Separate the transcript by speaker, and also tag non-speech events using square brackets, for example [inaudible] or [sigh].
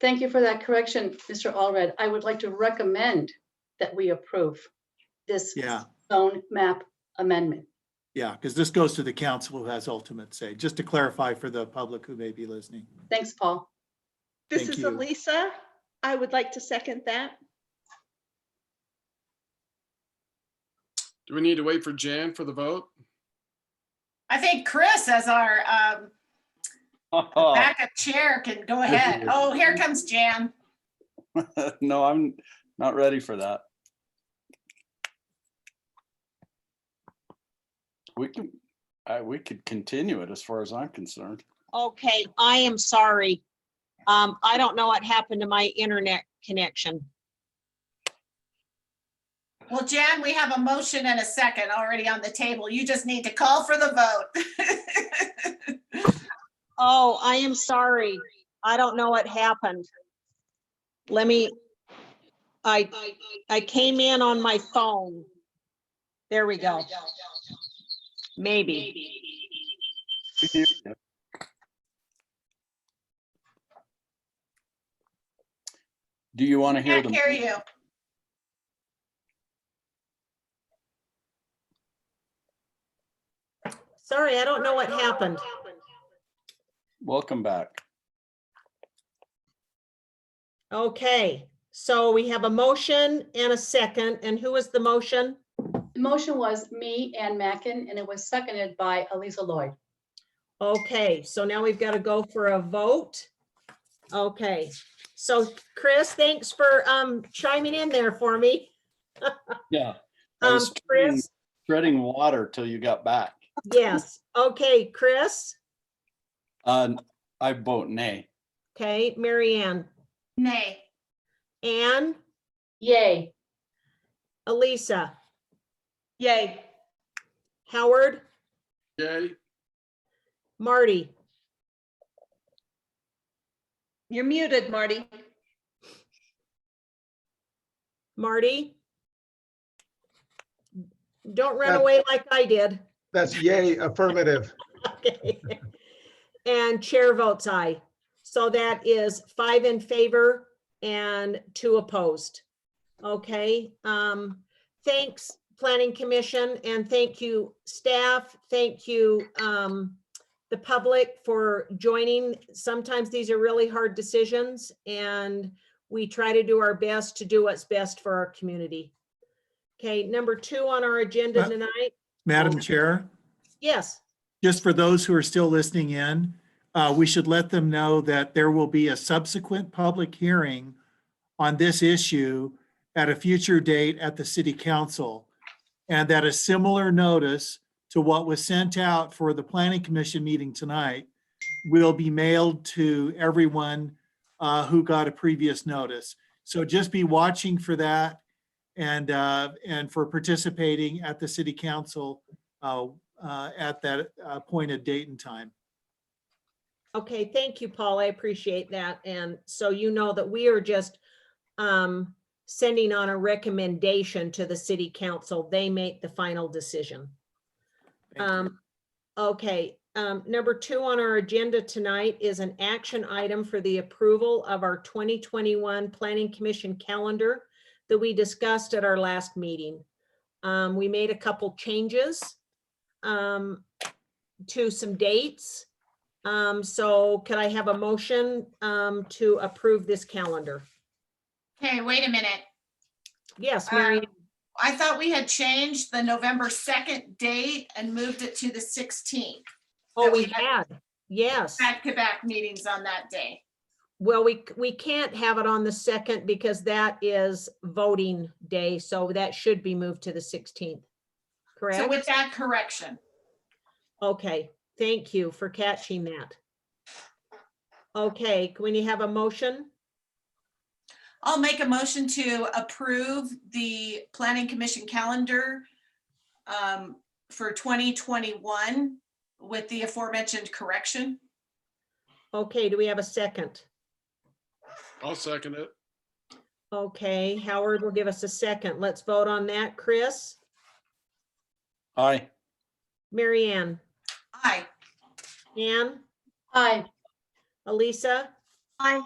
Speaker 1: Thank you for that correction, Mr. Allred. I would like to recommend that we approve this
Speaker 2: Yeah,
Speaker 1: zone map amendment.
Speaker 2: yeah, because this goes to the council who has ultimate say, just to clarify for the public who may be listening.
Speaker 1: Thanks, Paul.
Speaker 3: This
Speaker 2: Thank
Speaker 3: is
Speaker 2: you.
Speaker 3: Elisa. I would like to second that.
Speaker 4: Do we need to wait for Jan for the vote?
Speaker 5: I think Chris as our um,
Speaker 6: Oh.
Speaker 5: backup chair can go ahead. Oh, here comes Jan.
Speaker 6: [laughs] No, I'm not ready for that. We can, I, we could continue it as far as I'm concerned.
Speaker 7: Okay, I am sorry. Um, I don't know what happened to my internet connection.
Speaker 5: Well, Jan, we have a motion and a second already on the table. You just need to call for the vote.
Speaker 7: Oh, I am sorry. I don't know what happened. Let me, I, I came in on my phone. There we go. Maybe.
Speaker 6: Do you want to hear
Speaker 5: Can't
Speaker 6: the?
Speaker 5: hear you.
Speaker 7: Sorry, I don't know what happened.
Speaker 6: Welcome back.
Speaker 7: Okay, so we have a motion and a second, and who is the motion?
Speaker 1: The motion was me, Ann Mackin, and it was seconded by Elisa Lloyd.
Speaker 7: Okay, so now we've got to go for a vote. Okay, so Chris, thanks for um chiming in there for me.
Speaker 6: Yeah. I
Speaker 7: Um,
Speaker 6: was
Speaker 7: Chris,
Speaker 6: treading water till you got back.
Speaker 7: yes, okay, Chris,
Speaker 6: Uh, I vote nay.
Speaker 7: okay, Mary Ann,
Speaker 5: Nay.
Speaker 7: Ann,
Speaker 1: Yay.
Speaker 7: Elisa,
Speaker 3: Yay.
Speaker 7: Howard,
Speaker 4: Yay,
Speaker 7: Marty,
Speaker 3: You're muted, Marty.
Speaker 7: Marty. Don't run away like I did.
Speaker 8: That's yay, affirmative.
Speaker 7: Okay. [laughs] And chair votes aye. So that is five in favor and two opposed. Okay, um, thanks, Planning Commission, and thank you, staff. Thank you, um, the public for joining. Sometimes these are really hard decisions and we try to do our best to do what's best for our community. Okay, number two on our agenda
Speaker 2: Ma-
Speaker 7: tonight,
Speaker 2: Madam Chair?
Speaker 7: yes,
Speaker 2: just for those who are still listening in, uh, we should let them know that there will be a subsequent public hearing on this issue at a future date at the city council. And that a similar notice to what was sent out for the planning commission meeting tonight will be mailed to everyone uh, who got a previous notice. So just be watching for that and, uh, and for participating at the city council uh, uh, at that appointed date and time.
Speaker 7: Okay, thank you, Paul. I appreciate that. And so you know that we are just um, sending on a recommendation to the city council. They make the final decision.
Speaker 2: Thank you.
Speaker 7: Um, okay, um, number two on our agenda tonight is an action item for the approval of our twenty twenty-one Planning Commission calendar that we discussed at our last meeting. Um, we made a couple changes um, to some dates. Um, so could I have a motion um, to approve this calendar?
Speaker 5: Okay, wait a minute.
Speaker 7: Yes, Mary,
Speaker 5: Um, I thought we had changed the November 2nd date and moved it to the 16th.
Speaker 7: oh,
Speaker 5: that
Speaker 7: we
Speaker 5: we had-
Speaker 7: had, yes.
Speaker 5: Back-to-back meetings on that day.
Speaker 7: Well, we, c- we can't have it on the second because that is voting day, so that should be moved to the sixteenth.
Speaker 5: So
Speaker 7: Correct?
Speaker 5: with that correction.
Speaker 7: Okay, thank you for catching that. Okay, can we have a motion?
Speaker 5: I'll make a motion to approve the planning commission calendar um, for 2021 with the aforementioned correction.
Speaker 7: Okay, do we have a second?
Speaker 4: I'll second it.
Speaker 7: Okay, Howard will give us a second. Let's vote on that. Chris,
Speaker 6: Aye.
Speaker 7: Mary Ann,
Speaker 5: Aye.
Speaker 7: Ann,
Speaker 1: Aye.
Speaker 7: Elisa?
Speaker 3: Aye.